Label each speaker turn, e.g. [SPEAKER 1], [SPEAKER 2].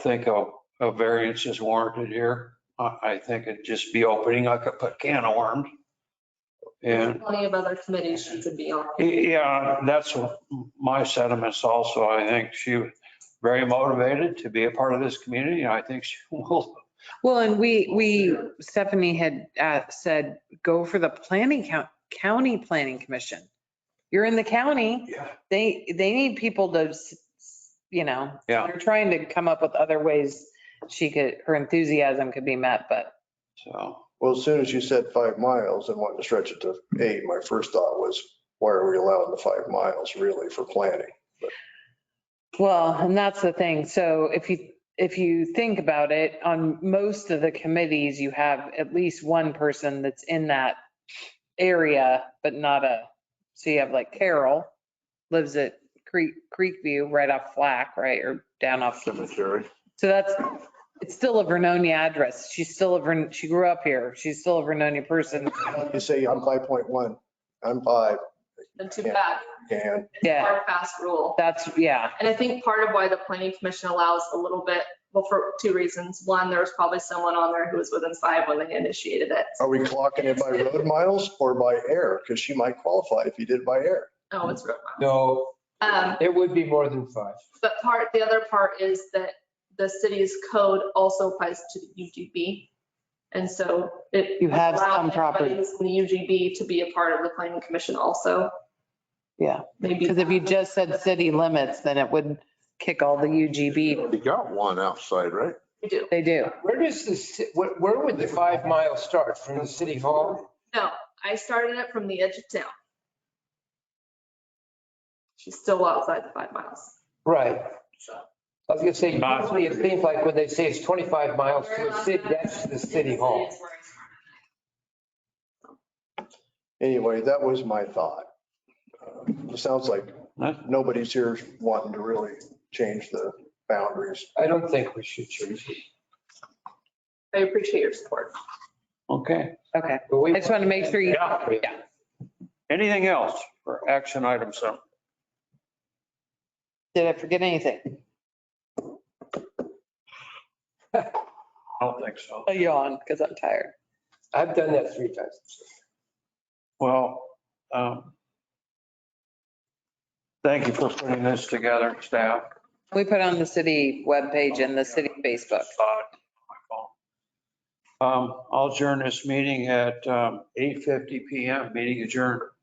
[SPEAKER 1] think a, a variance is warranted here. I, I think it'd just be opening up a can of worms. And,
[SPEAKER 2] Plenty of other committees she could be on.
[SPEAKER 1] yeah, that's what my sentiments also. I think she was very motivated to be a part of this community, and I think she will.
[SPEAKER 3] Well, and we, we, Stephanie had uh, said, go for the planning, coun- county planning commission. You're in the county,
[SPEAKER 1] Yeah.
[SPEAKER 3] they, they need people to, s- s- you know.
[SPEAKER 1] Yeah.
[SPEAKER 3] They're trying to come up with other ways she could, her enthusiasm could be met, but
[SPEAKER 1] So,
[SPEAKER 4] Well, as soon as you said five miles and wanted to stretch it to eight, my first thought was, why are we allowing the five miles really for planning?
[SPEAKER 3] Well, and that's the thing. So if you, if you think about it, on most of the committees, you have at least one person that's in that area, but not a, so you have like Carol lives at Creek, Creekview, right off Flack, right? Or down off.
[SPEAKER 4] Cemetery.
[SPEAKER 3] So that's, it's still a Vernonia address. She's still a, Vern- she grew up here. She's still a Vernonia person.
[SPEAKER 4] You say I'm five point one, I'm five,
[SPEAKER 2] And too bad.
[SPEAKER 4] and
[SPEAKER 2] It's a
[SPEAKER 3] Yeah.
[SPEAKER 2] Hard, fast rule.
[SPEAKER 3] That's, yeah.
[SPEAKER 2] And I think part of why the planning commission allows a little bit, well, for two reasons. One, there was probably someone on there who was within five when they initiated it.
[SPEAKER 4] are we clocking it by road miles or by air? Because she might qualify if you did by air.
[SPEAKER 2] Oh, it's real.
[SPEAKER 5] No,
[SPEAKER 2] Um,
[SPEAKER 5] it would be more than five.
[SPEAKER 2] but part, the other part is that the city's code also applies to the UGB. And so it.
[SPEAKER 3] You have some
[SPEAKER 2] allows anybody
[SPEAKER 3] properties.
[SPEAKER 2] who's In the UGB to be a part of the planning commission also.
[SPEAKER 3] Yeah.
[SPEAKER 2] Maybe.
[SPEAKER 3] Because if you just said city limits, then it would kick all the UGB.
[SPEAKER 6] You got one outside, right?
[SPEAKER 2] You do.
[SPEAKER 3] They do.
[SPEAKER 5] Where does this, where, where would the five miles start? From the city hall?
[SPEAKER 2] No, I started it from the edge of town. She's still outside the five miles.
[SPEAKER 5] Right.
[SPEAKER 2] So
[SPEAKER 5] I was gonna say,
[SPEAKER 1] Not-
[SPEAKER 5] usually it seems like when they say it's 25 miles
[SPEAKER 2] Where
[SPEAKER 5] to the
[SPEAKER 2] I'm
[SPEAKER 5] city,
[SPEAKER 2] at,
[SPEAKER 5] that's to the city
[SPEAKER 2] is
[SPEAKER 5] hall.
[SPEAKER 2] where I started.
[SPEAKER 4] Anyway, that was my thought. Uh, It sounds like nobody's here wanting to really change the boundaries.
[SPEAKER 5] I don't think we should change it.
[SPEAKER 2] I appreciate your support.
[SPEAKER 1] okay.
[SPEAKER 3] Okay.
[SPEAKER 5] But we-
[SPEAKER 3] I just want to make sure you.
[SPEAKER 1] Yeah. Anything else for action item seven?
[SPEAKER 3] Did I forget anything?
[SPEAKER 1] I don't think so.
[SPEAKER 3] I yawn because I'm tired.
[SPEAKER 5] I've done that three times.
[SPEAKER 1] Well, um, thank you for putting this together, staff.
[SPEAKER 3] We put on the city webpage and the city Facebook.
[SPEAKER 1] Um, I'll adjourn this meeting at um, 8:50 PM, meeting adjourned.